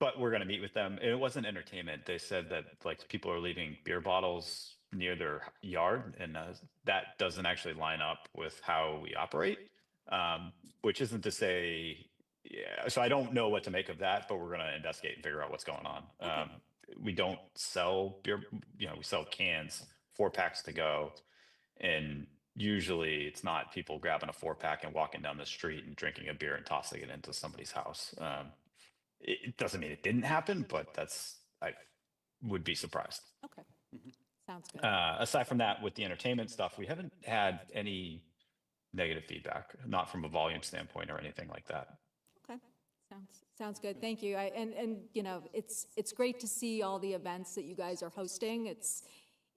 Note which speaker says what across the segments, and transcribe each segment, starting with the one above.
Speaker 1: but we're gonna meet with them. It wasn't entertainment. They said that like people are leaving beer bottles near their yard and uh, that doesn't actually line up with how we operate. Um, which isn't to say, yeah, so I don't know what to make of that, but we're gonna investigate and figure out what's going on.
Speaker 2: Okay.
Speaker 1: Um, we don't sell beer, you know, we sell cans, four packs to go. And usually it's not people grabbing a four pack and walking down the street and drinking a beer and tossing it into somebody's house. Um, it, it doesn't mean it didn't happen, but that's, I would be surprised.
Speaker 2: Okay. Sounds good.
Speaker 1: Uh, aside from that, with the entertainment stuff, we haven't had any negative feedback, not from a volume standpoint or anything like that.
Speaker 2: Okay, sounds, sounds good, thank you. I, and, and, you know, it's, it's great to see all the events that you guys are hosting. It's,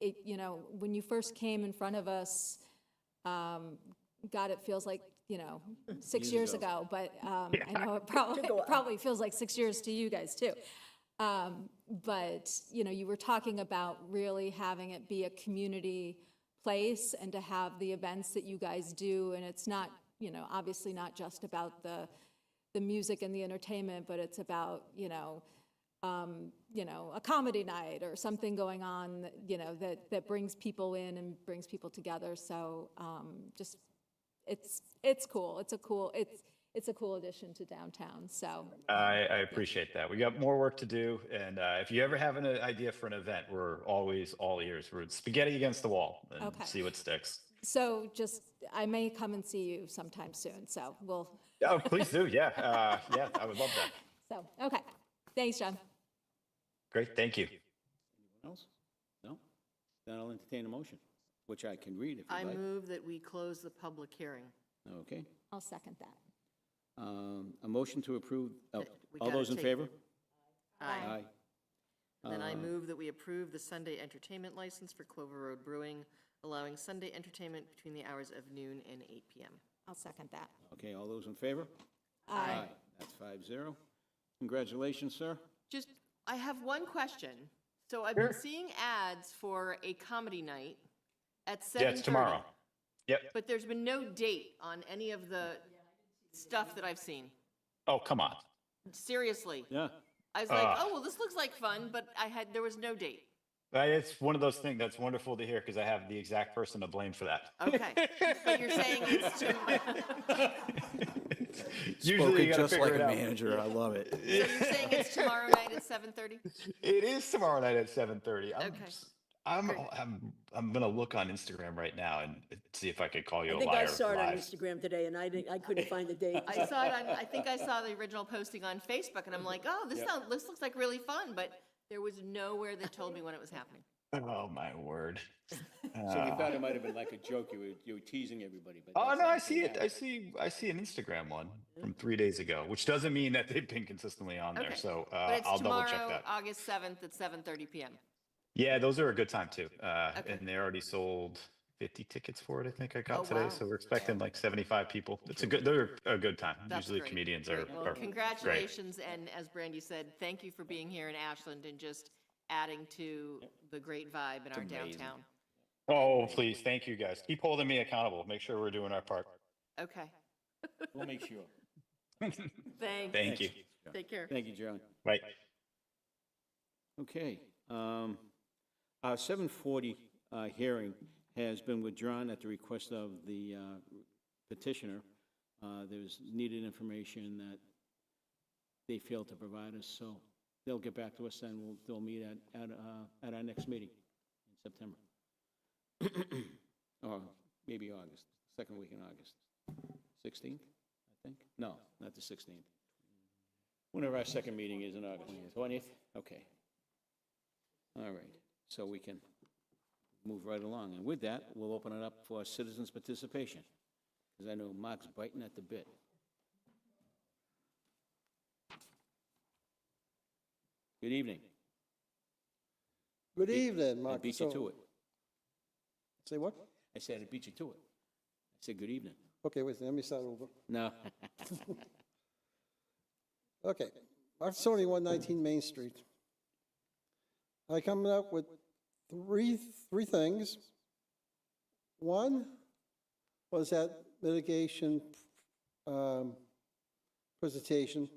Speaker 2: it, you know, when you first came in front of us, um, God, it feels like, you know, six years ago, but, um, I know it probably, it probably feels like six years to you guys too. Um, but, you know, you were talking about really having it be a community place and to have the events that you guys do, and it's not, you know, obviously not just about the, the music and the entertainment, but it's about, you know, um, you know, a comedy night or something going on, that, you know, that, that brings people in and brings people together. So, um, just, it's, it's cool. It's a cool, it's, it's a cool addition to downtown. So,
Speaker 1: I, I appreciate that. We got more work to do. And uh, if you ever have an idea for an event, we're always all ears. We're spaghetti against the wall and
Speaker 2: Okay.
Speaker 1: see what sticks.
Speaker 2: so just, I may come and see you sometime soon. So we'll,
Speaker 1: Oh, please do. Yeah. Uh, yeah. I would love that.
Speaker 2: so, okay. Thanks, John.
Speaker 1: Great. Thank you.
Speaker 3: Else? No? Then I'll entertain a motion, which I can read if
Speaker 4: I
Speaker 3: you'd like.
Speaker 4: move that we close the public hearing.
Speaker 3: Okay.
Speaker 2: I'll second that.
Speaker 3: Um, A motion to approve, oh,
Speaker 4: We
Speaker 3: all
Speaker 4: gotta
Speaker 3: those in
Speaker 4: take-
Speaker 3: favor?
Speaker 4: Aye.
Speaker 3: Aye.
Speaker 4: And then I
Speaker 3: Uh,
Speaker 4: move that we approve the Sunday entertainment license for Clover Road Brewing, allowing Sunday entertainment between the hours of noon and 8 PM.
Speaker 2: I'll second that.
Speaker 3: Okay, all those in favor?
Speaker 2: Aye.
Speaker 3: That's five zero. Congratulations, sir.
Speaker 4: Just, I have one question. So I've been seeing ads for a comedy night at 7:30.
Speaker 1: Yeah. It's tomorrow. Yep.
Speaker 4: But there's been no date on any of the stuff that I've seen.
Speaker 1: Oh, come on.
Speaker 4: Seriously.
Speaker 3: Yeah. Ah.
Speaker 4: I was like,
Speaker 1: Ugh.
Speaker 4: oh, well, this looks like fun, but I had, there was no date.
Speaker 1: Uh, It's one of those things that's wonderful to hear because I have the exact person to blame for that.
Speaker 4: Okay. But you're saying it's too,
Speaker 1: Usually you got to
Speaker 3: just
Speaker 1: figure
Speaker 3: like
Speaker 1: it
Speaker 3: a
Speaker 1: out.
Speaker 3: manager. I love it.
Speaker 4: so you're saying it's tomorrow night at 7:30?
Speaker 1: It is tomorrow night at seven thirty. I'm,
Speaker 4: Okay.
Speaker 1: I'm, I'm, I'm gonna look on Instagram right now and see if I could call you
Speaker 5: I
Speaker 1: a
Speaker 5: think I
Speaker 1: liar
Speaker 5: saw it on
Speaker 1: live.
Speaker 5: Instagram today, and I didn't, I couldn't find the date.
Speaker 4: I saw it on, I think I saw the original posting on Facebook and I'm like, oh, this sounds, this looks like really fun, but there was nowhere that told me when it was happening.
Speaker 1: Oh my word.
Speaker 3: So we thought it might have been like a joke. You were, you were teasing everybody, but.
Speaker 1: Oh
Speaker 3: that's
Speaker 1: no, I
Speaker 3: actually
Speaker 1: see it. I
Speaker 3: happened.
Speaker 1: see, I see an Instagram one from three days ago, which doesn't mean that they've been consistently on there.
Speaker 4: Okay.
Speaker 1: So
Speaker 4: But
Speaker 1: uh,
Speaker 4: it's
Speaker 1: I'll double check
Speaker 4: tomorrow,
Speaker 1: that.
Speaker 4: August 7th at 7:30 PM.
Speaker 1: Yeah, those are a good time too. Uh,
Speaker 4: Okay.
Speaker 1: and they already sold fifty tickets for it. I think I
Speaker 4: Oh,
Speaker 1: got today.
Speaker 4: wow.
Speaker 1: So we're expecting like seventy-five people. It's a good, they're a good time.
Speaker 4: That's
Speaker 1: Usually
Speaker 4: great.
Speaker 1: comedians are.
Speaker 4: Great. Well,
Speaker 1: are great.
Speaker 4: Congratulations, and as Brandy said, thank you for being here in Ashland and just adding to the great vibe in our downtown.
Speaker 1: Oh, please. Thank you guys. Keep holding me accountable. Make sure we're doing our part.
Speaker 4: Okay,
Speaker 3: We'll make sure.
Speaker 4: thanks,
Speaker 1: Thank you.
Speaker 4: take care.
Speaker 3: Thank you, John.
Speaker 1: Right.
Speaker 3: Okay. um, Our 740 uh, hearing has been withdrawn at the request of the uh, petitioner. Uh, There's needed information that they failed to provide us, so they'll get back to us, and we'll, they'll meet at, at uh, at our next meeting in September. Or maybe August, second week in August. 16th, I think? No, not the 16th. Whenever our second meeting is in August. 20th? Okay. All right, so we can move right along. And with that, we'll open it up for citizens' participation, because I know Mark's biting at the bit. Good evening.
Speaker 6: Good evening,
Speaker 3: I
Speaker 6: Mark.
Speaker 3: beat you to it.
Speaker 6: Say what?
Speaker 3: I said I beat you to it. I said, good evening.
Speaker 6: Okay, wait, let me start over.
Speaker 3: No,
Speaker 6: Okay, Mark Sony, 119 Main Street. I come up with three, three things. One was that mitigation um, presentation.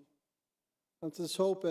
Speaker 6: I'm just hoping